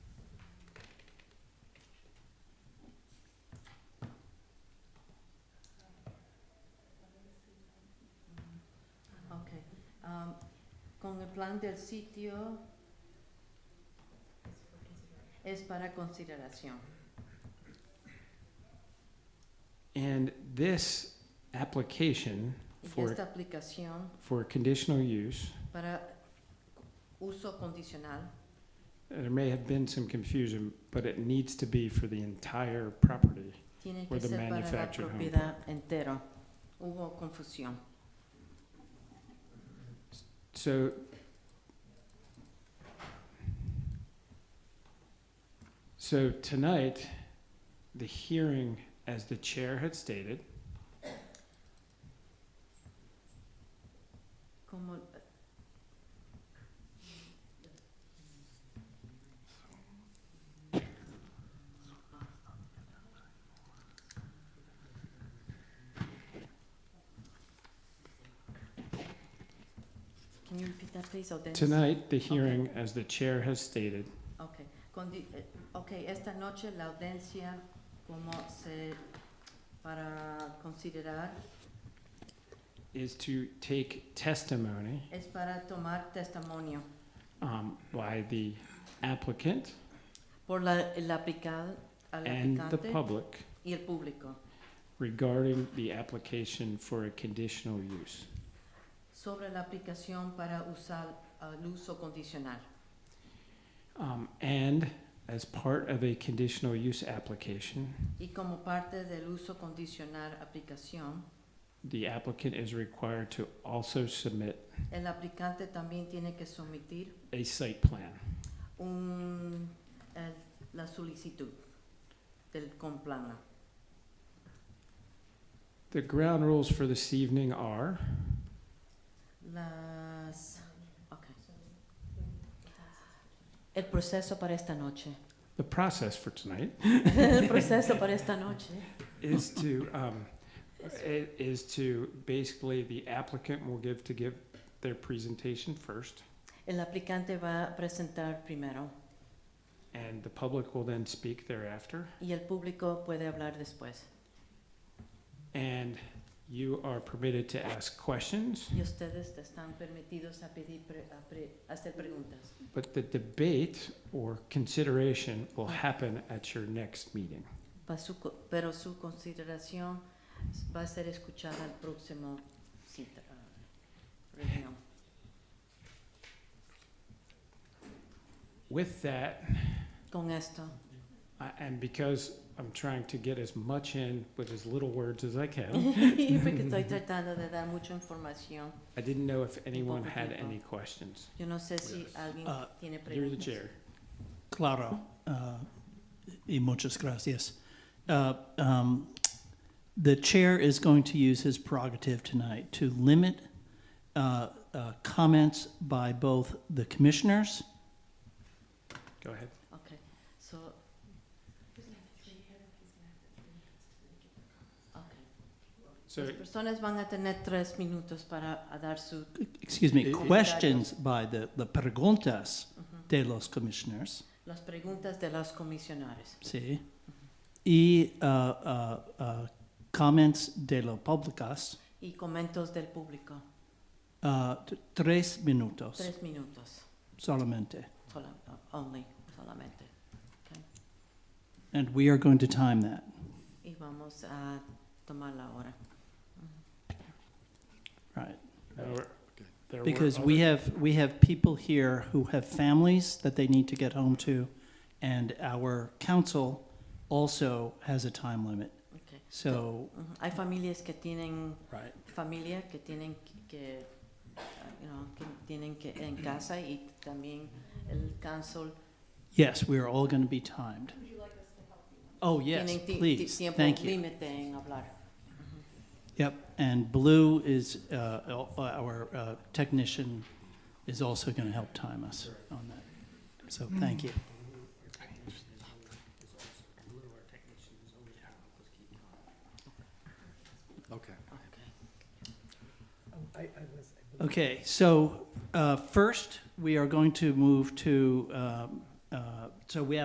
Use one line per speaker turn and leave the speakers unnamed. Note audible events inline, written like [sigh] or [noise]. plan del sitio es para consideración.
And this application
Y
for,
esta aplicación
for conditional use,
para uso condicional
there may have been some confusion, but it needs to be for the entire property.
tiene
Or
que
the
ser para la
manufactured home.
propiedad entera. Hubo confusión.
So, so tonight, the hearing, as the chair had stated,
Como Can you repeat that, please, or Dennis?
tonight, the hearing, as the chair has stated,
Okay, condi- eh, ok, esta noche la audiencia, como se, para considerar,
is to take testimony
es para tomar testimonio
um, by the applicant
por la, el aplica- al
and the
aplicante
public
y el público
regarding the application for a conditional use.
sobre la aplicación para usar el uso condicional.
Um, and as part of a conditional use application,
Y como parte del uso condicional aplicación,
the applicant is required to also submit
el aplicante también tiene que someter
a site plan.
un, el- la solicitud del complano.
The ground rules for this evening are
Las. ok. El proceso para esta [laughs] noche.
the process for tonight
El proceso para esta noche.
is to um, i- is to basically the applicant will give to give their presentation first,
El aplicante va a presentar primero
and the public will then speak thereafter.
y el público puede hablar después.
And you are permitted to ask questions,
Y ustedes están permitidos a pedir pre- a pre- hacer preguntas.
but the debate or consideration will happen at your next meeting.
Pa su co- pero su consideración va a ser escuchada al próximo cita, ah, reunión.
With that,
Con esto,
I- And because I'm trying to get as much in with as little words as I
Mm-hmm. [laughs]
can,
y porque estoy tratando de dar mucha información,
I didn't know if anyone
Poco
had
tiempo.
any questions.
yo no sé si alguien
Ah,
tiene
You're the
preguntas.
chair.
Claro, uh, y muchas gracias. Uh, um, The chair is going to use his prerogative tonight to limit uh, uh, comments by both the commissioners.
Go ahead.
Okay, so. Okay.
So,
Las personas van a tener tres minutos para a dar su,
Excuse me,
Eh, eh.
questions by the, the preguntas
ujú,
de los commissioners,
las preguntas de los comisionarios
sí, y uh, uh, uh, comments de los públicas,
y comentarios del público.
uh, t- tres minutos
Tres minutos,
solamente.
sola- only, solamente.
And we are going to time that.
Y vamos a tomar la hora.
there were- there were
Because we
other-
have, we have people here who have families that they need to get home to, and our council also has a time limit.
Okay.
So,
Ujú, Hay familias que tienen,
right.
familia que tienen que- que, ah, you know, que tienen que en casa y también el council
yes, we are all going to be timed. Oh, yes,
tienen ti- ti-
please,
tiempo
thank you.
límite en hablar.
Yep, and Blue is, uh, al- our uh, technician is also going to help time us on that. So, thank you.
Okay.
Okay, so uh, first, we are going to move to, um, uh, so we have